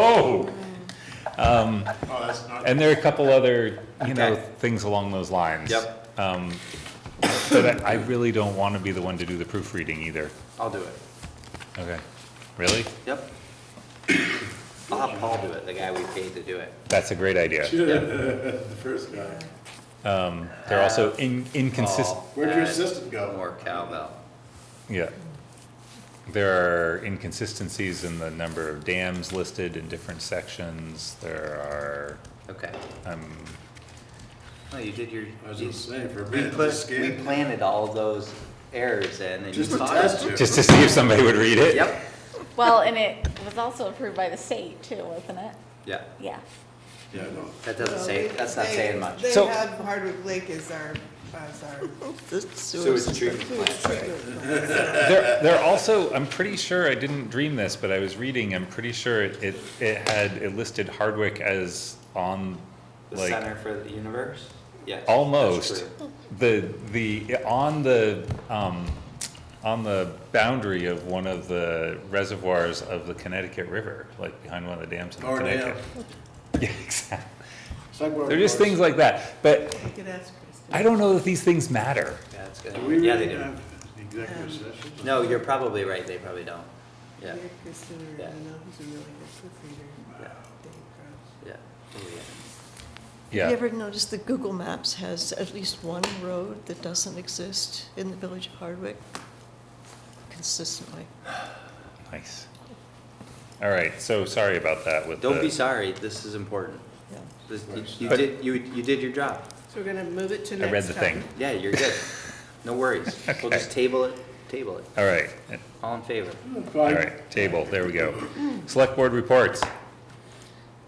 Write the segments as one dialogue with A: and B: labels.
A: Oh,
B: Oh, that's not,
A: and there are a couple other, you know,
C: Okay.
A: things along those lines.
C: Yep.
A: Um, But I I really don't want to be the one to do the proofreading either.
C: I'll do it.
A: Okay. Really?
C: Yep. I'll have Paul do it, the guy we paid to do it.
A: That's a great idea.
B: the first guy.
A: They're also in- inconsistent,
C: Paul
B: Where'd your
C: and
B: assistant go?
C: More cowbell.
A: yeah. There are inconsistencies in the number of dams listed in different sections. There
C: Okay.
A: are, um,
C: No, you did your.
B: I was
C: you-
B: just saying, for a
C: We
B: minute, it was
C: put, we
B: scary.
C: planted all those errors in and you
B: Just to
C: caught
B: test
C: them.
B: you.
A: just to see if somebody would read it.
C: Yep,
D: Well, and it was also approved by the state too, wasn't it?
C: yeah,
D: Yeah.
B: Yeah, no.
C: that doesn't say, that's not
E: They-
C: saying much.
E: They
A: So-
E: have Hardwick Lake as our, as our
C: Sewage treatment plant, right?
E: treatment.
A: There, there are also, I'm pretty sure, I didn't dream this, but I was reading, I'm pretty sure it, it, it had, it listed Hardwick as on,
C: The
A: like,
C: Center for the Universe? Yes. that's
A: almost.
C: true.
A: The, the, on the, um, on the boundary of one of the reservoirs of the Connecticut River, like behind one of the dams in
C: Oh,
B: Power dam.
A: Connecticut. Yeah, exactly.
B: Psych-
A: They're just things like that, but
E: You could ask Kristen.
A: I don't know that these things matter.
C: Yeah, it's
B: Do we
C: good. Yeah, they
B: really
C: do.
B: have executive session?
C: No, you're probably right, they probably don't. Yeah,
E: Yeah, Kristen or
C: Yeah.
E: Anna, who's a really good proofreader.
C: Yeah.
E: Dave Cross.
C: yeah. Oh, yeah.
F: Have
A: Yeah.
F: you ever noticed that Google Maps has at least one road that doesn't exist in the village of Hardwick consistently?
A: Nice. All right, so sorry about that with the.
C: Don't be sorry, this is important.
F: Yeah.
C: This, you, you
A: But-
C: did, you, you did your job.
E: So we're gonna move it to
A: I
E: next time.
A: read the thing.
C: Yeah, you're good. No worries. We'll just table it, table it.
A: All right,
C: All in favor?
A: all right, table, there we go. Select board reports.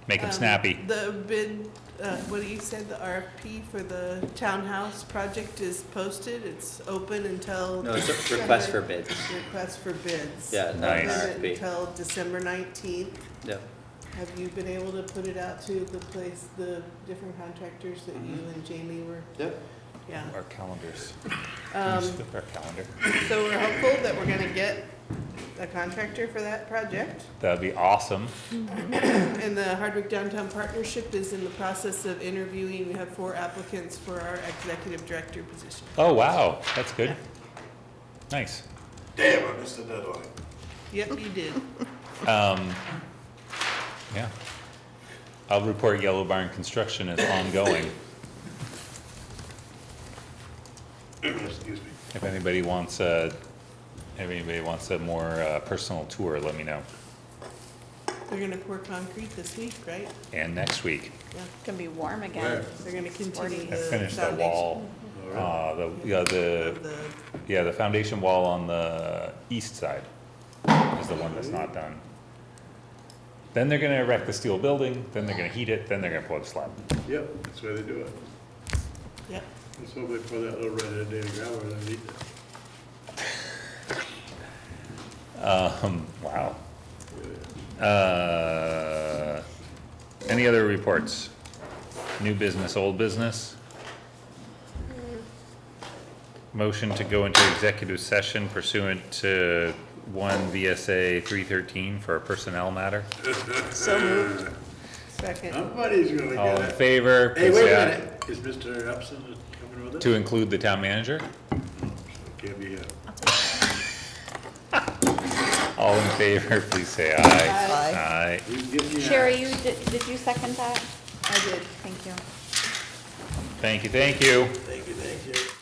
A: Make them
E: Um,
A: snappy.
E: The bid, uh, what you said, the RFP for the townhouse project is posted, it's open until.
C: No, it's a request for bids.
E: Request for bids.
C: Yeah, not
A: an
E: Open
C: RFP.
E: Until December nineteenth.
C: Yep.
E: Have you been able to put it out to the place, the different contractors that you and Jamie were?
C: Yep.
E: Yeah.
A: Our calendars. Can
E: Um,
A: you flip our calendar?
E: so we're hopeful that we're gonna get a contractor for that project.
A: That'd be awesome.
E: And the Hardwick Downtown Partnership is in the process of interviewing. We have four applicants for our executive director position.
A: Oh, wow, that's good. Nice.
B: Damn, I missed the deadline.
E: Yep, you did.
A: Um, yeah. I'll report Yellow Barn construction is ongoing.
B: Excuse me.
A: If anybody wants a, if anybody wants a more uh, personal tour, let me know.
E: They're gonna pour concrete this week, right?
A: And next week,
E: Yeah.
D: It's gonna be warm
B: Where?
D: again.
E: They're gonna continue
D: Sporty.
A: I
E: the
A: finished the
E: foundation
A: wall,
B: All right.
A: uh, the, yeah, the
E: of the-
A: Yeah, the foundation wall on the east side is the one that's not done. Then they're gonna erect the steel building, then they're gonna heat it, then they're gonna pour the slab.
B: Yep, that's the way they do it.
E: Yep.
B: That's why they pour that little red headed gravel underneath it.
A: Um, wow.
B: Yeah.
A: Uh, any other reports? New business, old business? Motion to go into executive session pursuant to one VSA three thirteen for a personnel matter?
F: So moved.
E: Second.
B: Somebody's gonna
A: All in
B: get it.
A: favor?
B: Hey,
A: please
B: wait a
A: say aye.
B: minute, is Mr. Upson coming with us?
A: To include the town manager?
B: Can't be, uh,
A: All in favor, please say aye.
F: Aye.
A: Aye.
B: you can give me a.
D: Sherry, you, did, did you second that?
E: I did.
D: Thank you.
A: Thank you, thank you.
B: Thank you, thank you.